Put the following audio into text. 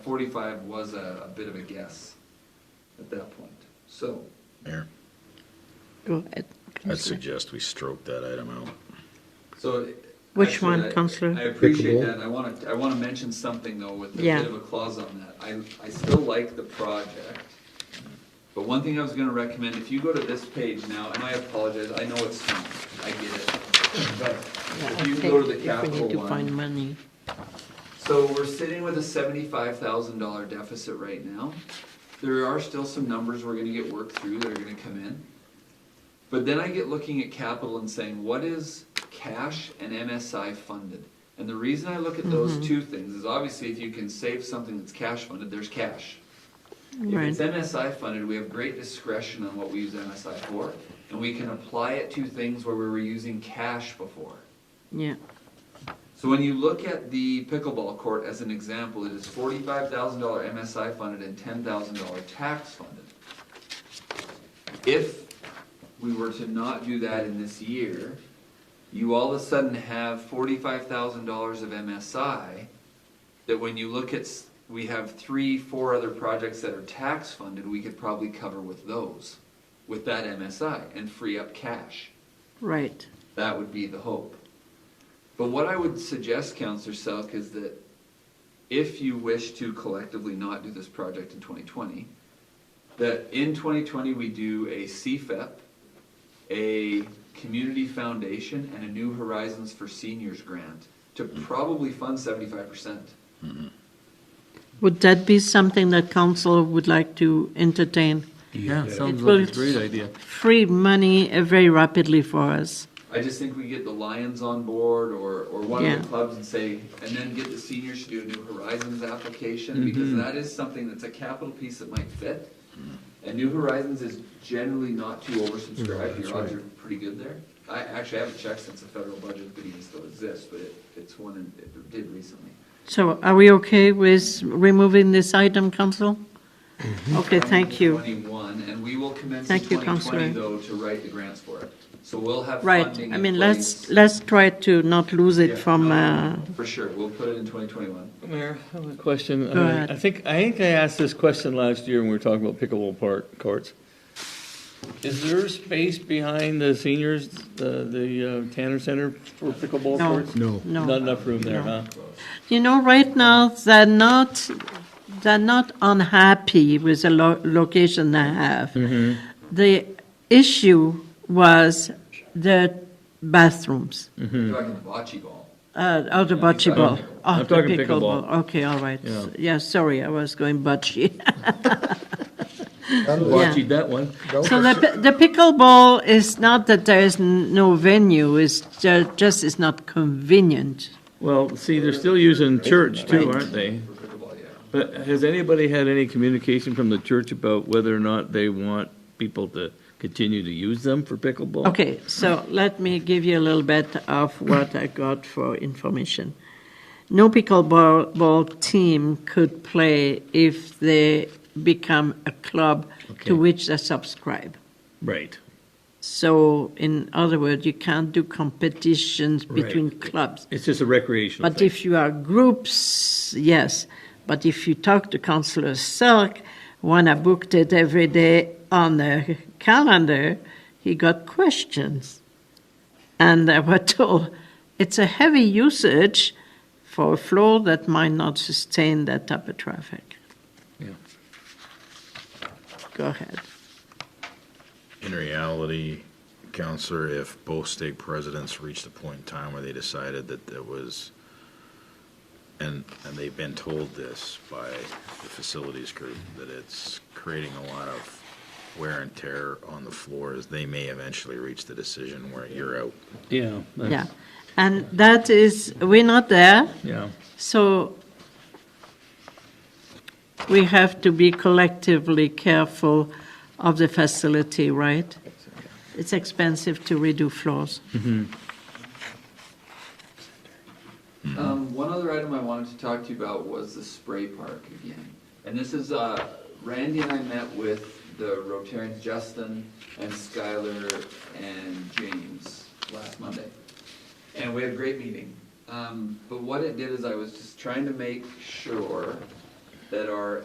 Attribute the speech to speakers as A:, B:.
A: Forty-five was a, a bit of a guess at that point, so.
B: Mayor,
C: Go ahead.
B: I'd suggest we stroke that item out.
A: So.
C: Which
A: actually,
C: one,
A: I-
C: Counselor?
A: I appreciate
D: Pickleball?
A: that, I want to, I want to mention something though with a
C: Yeah.
A: bit of a clause on that. I, I still like the project, but one thing I was going to recommend, if you go to this page now, and I apologize, I know it's small, I get it. But if you go to the
C: We
A: capital
C: need to find
A: one,
C: money.
A: so we're sitting with a seventy-five thousand dollar deficit right now. There are still some numbers we're gonna get worked through that are gonna come in. But then I get looking at capital and saying, what is cash and MSI funded? And the reason I look at those two things is obviously if you can save something that's cash funded, there's cash. If
C: Right.
A: it's MSI funded, we have great discretion on what we use MSI for, and we can apply it to things where we were using cash before.
C: Yeah,
A: So when you look at the pickleball court as an example, it is forty-five thousand dollar MSI funded and ten thousand dollar tax funded. If we were to not do that in this year, you all of a sudden have forty-five thousand dollars of MSI that when you look at, s- we have three, four other projects that are tax funded, we could probably cover with those, with that MSI and free up cash.
C: right.
A: That would be the hope. But what I would suggest, Counselor Selk, is that if you wish to collectively not do this project in twenty twenty, that in twenty twenty, we do a CFEP, a community foundation, and a New Horizons for Seniors grant to probably fund seventy-five percent.
C: Would that be something that council would like to entertain?
E: Yeah, sounds
C: It
E: like a
C: will-
E: great idea.
C: Free money uh, very rapidly for us.
A: I just think we get the Lions on board or, or one of
C: Yeah.
A: the clubs and say, and then get the seniors to do a New Horizons
C: Mm-hmm.
A: application, because that is something that's a capital piece that might fit. And New Horizons is generally not too oversubscribed, your odds are pretty good there. I actually haven't checked since the federal budget could even still exists, but it, it's one, in- it did recently.
C: So are we okay with removing this item, council?
A: Mm-hmm.
C: Okay, thank you.
A: Twenty-one, and we will commence in
C: Thank you,
A: twenty twenty
C: Counselor.
A: though to write the grants for it. So we'll have
C: Right,
A: funding
C: I
A: in
C: mean,
A: place.
C: let's, let's try to not lose
A: Yeah,
C: it from,
A: no,
C: uh,
A: For sure, we'll put it in twenty twenty-one.
E: Mayor, I have a question.
C: Go ahead.
E: I think, I think I asked this question last year when we were talking about pickleball park courts. Is there space behind the seniors, the, the uh, Tanner Center for pickleball
C: No.
E: courts?
D: No.
C: no.
E: Not enough room there, huh?
C: You know, right now, they're not, they're not unhappy with the lo- location they have.
E: Mm-hmm.
C: The issue was the bathrooms,
A: You're talking bocce ball.
C: uh, or the
A: talking
C: bocce ball.
A: pickleball.
C: Oh,
E: I'm
C: the
E: talking pickleball.
C: ball. Okay, all right.
E: Yeah.
C: Yeah, sorry, I was going bocce.
E: Watch you that one.
C: So the, pi- the pickleball is not that there is n- no venue, it's ju- just, it's not convenient.
E: Well, see, they're still using church too, aren't they?
A: For pickleball, yeah.
E: But has anybody had any communication from the church about whether or not they want people to continue to use them for pickleball?
C: Okay, so let me give you a little bit of what I got for information. No pickleball ball team could play if they become a club
E: Okay.
C: to which they subscribe.
E: Right.
C: So, in other words, you can't do competitions between clubs.
E: It's just a recreational
C: But
E: thing.
C: if you are groups, yes. But if you talk to Councillor Selk, when I booked it every day on the calendar, he got questions. And I was told it's a heavy usage for a floor that might not sustain that type of traffic.
E: Yeah.
C: Go ahead.
B: In reality, Counselor, if both state presidents reached a point in time where they decided that there was, and, and they've been told this by the facilities group, that it's creating a lot of wear and tear on the floors, they may eventually reach the decision where you're out.
E: Yeah. that's-
C: Yeah. And that is, we're not there.
E: Yeah.
C: So we have to be collectively careful of the facility, right? It's expensive to redo floors.
A: Um, one other item I wanted to talk to you about was the spray park again. And this is, uh, Randy and I met with the Rotarians, Justin and Skylar and James last Monday. And we had a great meeting. Um, but what it did is I was just trying to make sure that are